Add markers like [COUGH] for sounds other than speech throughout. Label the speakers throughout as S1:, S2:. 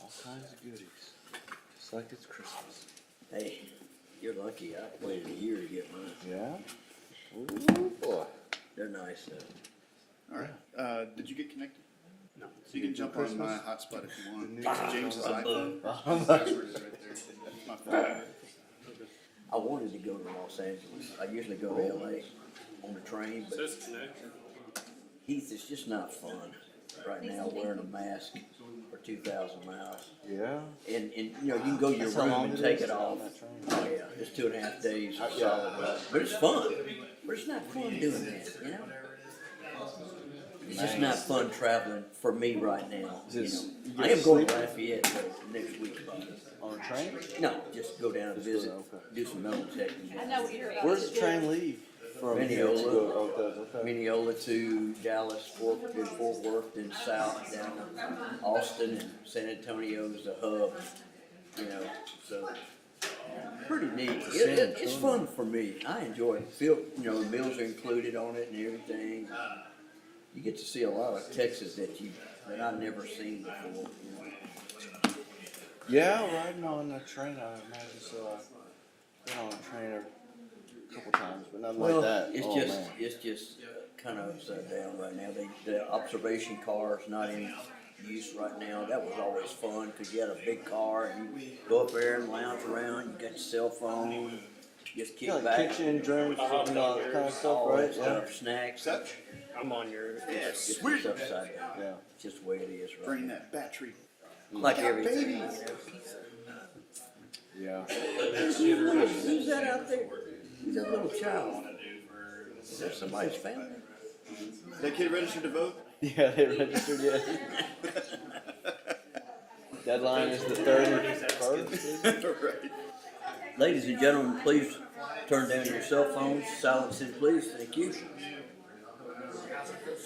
S1: All kinds of goodies, just like it's Christmas.
S2: Hey, you're lucky. I waited a year to get mine.
S1: Yeah? Ooh, boy.
S2: They're nice though.
S3: All right. Uh, did you get connected?
S4: No.
S3: So you can jump on my hotspot if you want. It's James's iPhone. His password is right there. It's my phone.
S2: I wanted to go to Los Angeles. I usually go to LA on the train, but
S4: Says connect.
S2: Heath, it's just not fun right now wearing a mask for two thousand miles.
S1: Yeah?
S2: And, and, you know, you can go to your
S1: That's how
S2: room
S1: long
S2: and
S1: it
S2: take
S1: is?
S2: it off. Oh, yeah, it's two and a half days of solid rest. But it's fun. But it's not fun doing that, you know? It's just not fun traveling for me right now, you know?
S1: Just- you
S2: I
S1: get
S2: am going to
S1: sleep?
S2: Lafayette but next week, but,
S1: On a train?
S2: no, just go down and
S1: Just go
S2: visit,
S1: down, okay.
S2: do some metal detecting.
S5: I know what you're about.
S1: Where's
S5: to
S1: the
S5: do.
S1: train leave? From here to
S2: Mineola.
S1: go, oh, it does, okay.
S2: Mineola to Dallas, Fort, then Fort Worth, then south down to Austin and San Antonio is the hub, you know, so. Pretty neat. It- it- it's fun for me. I enjoy it. Feel, you know, the meals are included on it and everything. You get to see a lot of Texas that you, that I've never seen before, you know.
S1: Yeah, riding on a train, I imagine, so I've been on a train a couple times, but nothing like that.
S2: It's
S1: Oh,
S2: just,
S1: man.
S2: it's just kind of upside down right now. They, the observation car is not in use right now. That was always fun because you had a big car and you go up there and lounge around. You got your cell phone, just kick
S1: Yeah, like
S2: back.
S1: kitchen, drinks,
S4: Uh-huh.
S1: and all that kind of stuff,
S2: all
S1: right?
S2: that
S1: Yeah.
S2: stuff, snacks.
S3: Such.
S4: I'm on your.
S2: It's just upside down.
S1: Yeah.
S2: It's just the way it is right
S3: Bring
S2: now.
S3: that battery.
S2: Like everything. you know.
S3: Babies.
S2: [LAUGHS]
S1: Yeah. [LAUGHS]
S2: Who's that out there? Who's that little child? Is that somebody's family?
S3: That kid registered to vote? [LAUGHS]
S1: Yeah, they registered yet. Deadline is the thirty-first.
S3: Right.
S2: Ladies and gentlemen, please turn down your cell phones, silence it please, thank you.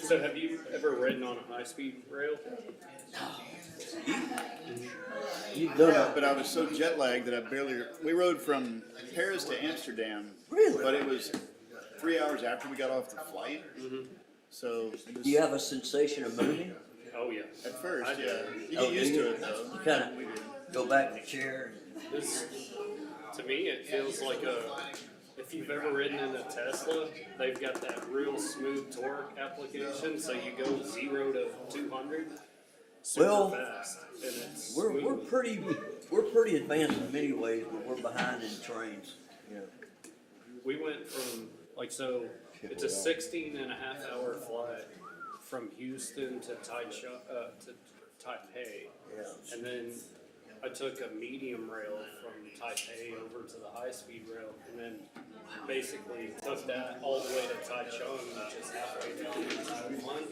S4: So have you ever ridden on a high-speed rail?
S2: You've
S3: Yeah,
S2: done
S3: but I was so jet lagged that I barely. We rode from Paris to Amsterdam.
S2: Really?
S3: But it was three hours after we got off the flight. So it was-
S2: Do you have a sensation of moving?
S4: Oh, yeah.
S3: at first,
S4: I
S3: yeah,
S4: did.
S3: you
S2: Oh,
S3: get
S2: do
S3: used
S2: you?
S3: to it though.
S2: You kinda go back in the chair and
S4: This, to me, it feels like a, if you've ever ridden in a Tesla, they've got that real smooth torque application, so you go zero to two hundred
S2: Well,
S4: super fast, and it's
S2: we're, we're
S4: smooth.
S2: pretty, we're pretty advanced in many ways, but we're behind in trains, you know.
S4: We went from, like, so, it's a sixteen and a half hour flight from Houston to Taisha, uh, to Taipei.
S2: Yeah.
S4: And then I took a medium rail from Taipei over to the high-speed rail, and then basically took that all the way to Taichung, which is halfway down to Taiwan,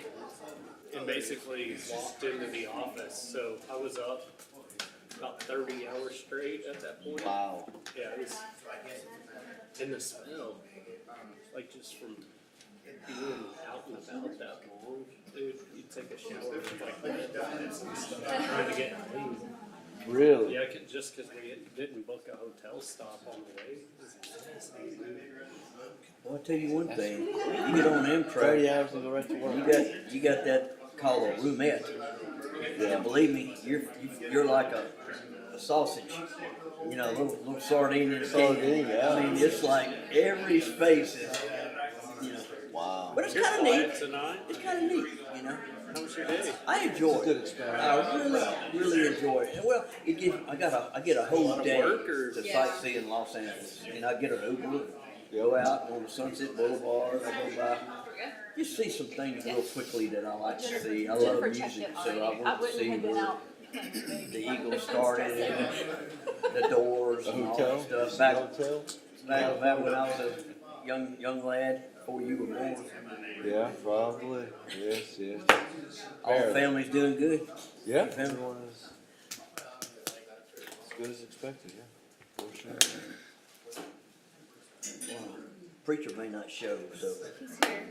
S4: and basically walked into the office. So I was up about thirty hours straight at that point.
S1: Wow.
S4: Yeah, it was in the smell, like just from being out and about that long, dude. You take a shower, it's like that, and stuff, trying to get clean.
S1: Really?
S4: Yeah, 'cause- just because we didn't book a hotel stop on the way.
S2: Well, I'll tell you one thing, you get on
S1: Thirty
S2: Amtrak,
S1: hours of the rest of
S2: you
S1: work.
S2: got, you got that called a roomette. And believe me, you're, you're like a, a sausage, you know, little, little sardine in a can.
S1: Sardine, yeah.
S2: I mean, it's like every space is, you know,
S1: Wow.
S2: but it's
S4: You're
S2: kind of
S4: quiet
S2: neat.
S4: tonight.
S2: It's kind of neat, you know.
S4: How was your day?
S2: I enjoy
S1: Good
S2: it.
S1: experience.
S2: I really, really enjoy it. And Well, it gives, I got a, I get a whole
S4: of
S2: day
S4: work, or-
S2: to
S5: Yeah.
S2: sightsee in Los Angeles, and I get an Uber, go out on Sunset Boulevard, I go by. Just see some things real quickly that I like to see. I love
S5: Jennifer checked
S2: music,
S5: it
S2: so I
S5: already. I
S2: want to
S5: wouldn't
S2: see
S5: have been
S2: where
S5: out. [LAUGHS]
S2: the Eagles started, and the Doors,
S1: The
S2: and all that
S1: hotel?
S2: stuff.
S1: The
S2: Back,
S1: hotel?
S2: back, back when I was a young, young lad, before you were born.
S1: Yeah, probably. Yes, yes.
S2: All the
S1: Barely.
S2: family's doing good.
S1: Yeah.
S2: Family.
S1: Everyone is as good as expected, yeah. For sure.
S2: Preacher may not show, so.
S5: He's here.